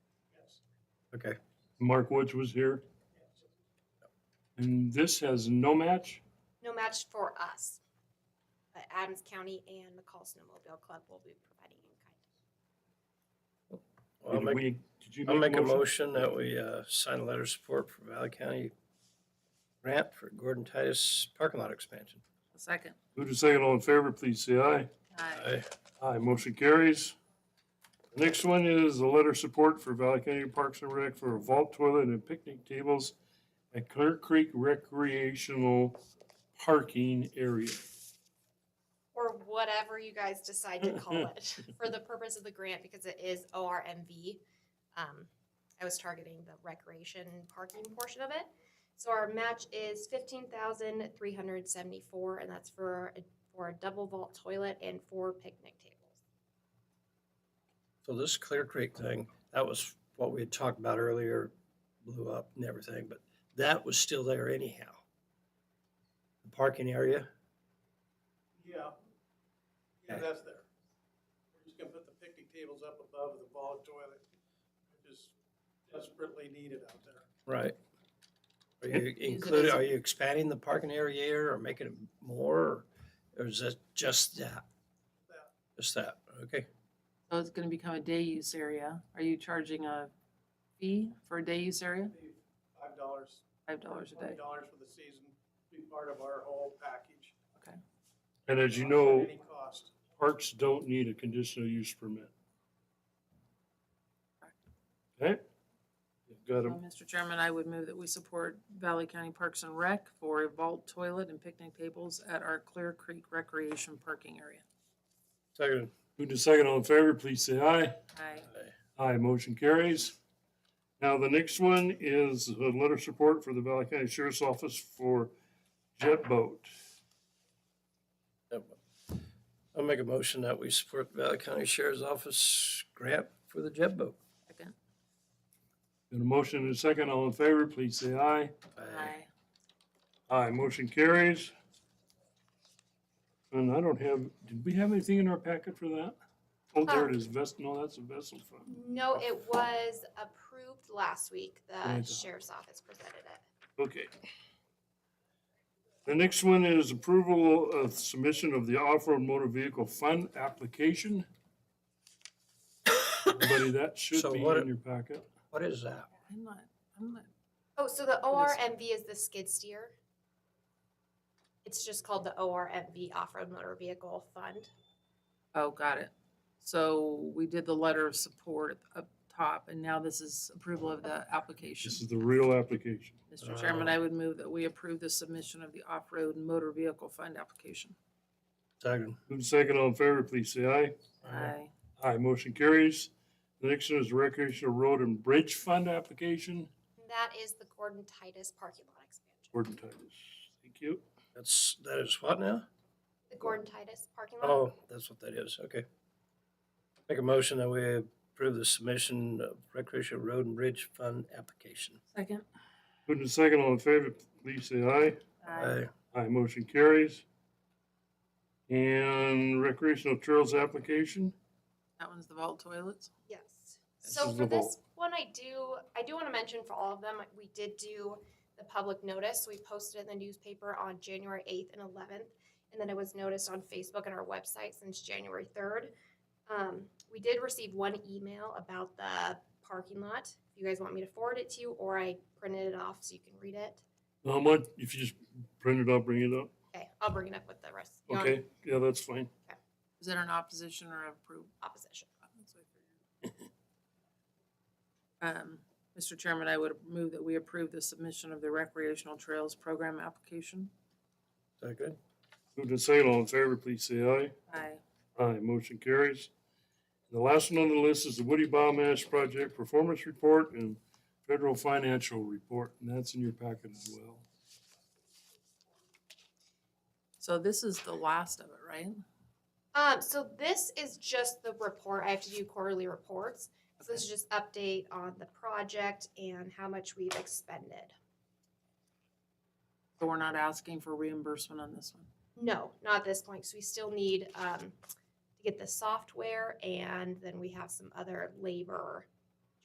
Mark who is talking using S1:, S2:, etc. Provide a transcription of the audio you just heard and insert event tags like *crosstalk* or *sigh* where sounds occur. S1: Okay.
S2: Mark Woods was here. And this has no match?
S3: No match for us. But Adams County and McCall Snowmobile Club will be providing in kind.
S1: I'll
S2: Did
S1: make,
S2: we- did you
S1: I'll make a motion that we uh, sign a letter of support for Valley County grant for Gordon Titus parking lot expansion.
S4: A second.
S2: Who to second all in favor, please say aye.
S4: Aye.
S1: Aye.
S2: Aye, motion carries. Next one is a letter of support for Valley County Parks and Rec for a vault toilet and picnic tables at Clear Creek recreational parking area.
S3: Or whatever you guys decide to call it *laughs* for the purpose of the grant because it is ORMV. Um, I was targeting the recreation parking portion of it. So our match is fifteen thousand three hundred seventy-four and that's for, a- for a double vault toilet and four picnic tables.
S1: So this Clear Creek thing, that was what we had talked about earlier, blew up and everything, but that was still there anyhow. The parking area,
S5: Yeah. Yeah, that's there. We're just gonna put the picnic tables up above the vault toilet, which is desperately needed out there.
S1: right. Are you
S4: it
S1: including,
S4: as-
S1: are you expanding the parking area here or making it more? Or is it just that?
S5: That.
S1: Just that, okay.
S4: So it's gonna become a day use area. Are you charging a fee for a day use area?
S5: Be Five dollars,
S4: Five dollars a
S5: twenty
S4: day.
S5: dollars for the season, be part of our whole package.
S2: And as you
S5: At
S2: know,
S5: Any cost.
S2: parks don't need a conditional use permit. Okay? You've Got
S4: So,
S2: a
S4: Mr. Chairman, I would move that we support Valley County Parks and Rec for a vault toilet and picnic tables at our Clear Creek Recreation Parking Area.
S1: Second.
S2: Move to second all in favor, please say aye.
S4: Aye.
S2: Aye, motion carries. Now, the next one is a letter of support for the Valley County Sheriff's Office for jet boat.
S1: I'll make a motion that we support the Valley County Sheriff's Office grant for the jet boat.
S4: Second.
S2: And a motion and a second, all in favor, please say aye.
S4: Aye.
S2: Aye, motion carries. And I don't have, did we have anything in our packet for that? Oh, there it is, vest, no, that's a vessel fund.
S3: No, it was approved last week. The
S2: Right.
S3: sheriff's office presented it.
S2: Okay. The next one is approval of submission of the off-road motor vehicle fund application. Everybody, that should
S1: So
S2: be
S1: what-
S2: in your packet.
S1: What is that?
S4: I'm not, I'm not,
S3: Oh, so the
S4: What is-
S3: ORMV is the skid steer. It's just called the ORMV Off-Road Motor Vehicle Fund.
S4: oh, got it. So we did the letter of support up top and now this is approval of the application.
S2: This is uh, the real application.
S4: Mr. Chairman,
S1: Oh.
S4: I would move that we approve the submission of the off-road motor vehicle fund application.
S1: Second.
S2: Move second all in favor, please say aye.
S4: Aye.
S2: Aye, motion carries. The next one is recreational road and bridge fund application.
S3: And that is the Gordon Titus parking lot expansion.
S2: Gordon Titus, thank you.
S1: That's, that is what now?
S3: The Gordon Titus parking lot.
S1: Oh, that's what that is, okay. Make a motion that we approve the submission of recreational road and bridge fund application.
S4: Second.
S2: Move second all in favor, please say aye. Aye, motion carries. And recreational trails application,
S4: That one's the vault toilets.
S3: Yes.
S2: This
S3: So
S2: is
S3: for
S2: the
S3: this one, I do, I do want to mention for all of them, we did do the public notice. We posted in the newspaper on January eighth and eleventh. And then it was noticed on Facebook and our website since January third. Um, we did receive one email about the parking lot. If you guys want me to forward it to you, or I printed it off so you can read it.
S2: how much, if you just print it up, bring it up,
S3: Okay, I'll bring it up with the rest. You want
S2: okay, yeah, that's fine.
S4: Is that an opposition or approval?
S3: Opposition.
S4: Um, Mr. Chairman, I would move that we approve the submission of the recreational trails program application.
S1: Is that good?
S2: Move to second all in favor, please say aye.
S4: Aye.
S2: Aye, motion carries. The last one on the list is the Woody Biomass Project Performance Report and Federal Financial Report, and that's in your packet as well.
S4: So this is the last of it, right?
S3: Um, so this is just the report. I have to do quarterly reports. So this is just update on the project and how much we've expended.
S4: So we're not asking for reimbursement on this one.
S3: No, not at this point, So we still need, um, to get the software and then we have some other labor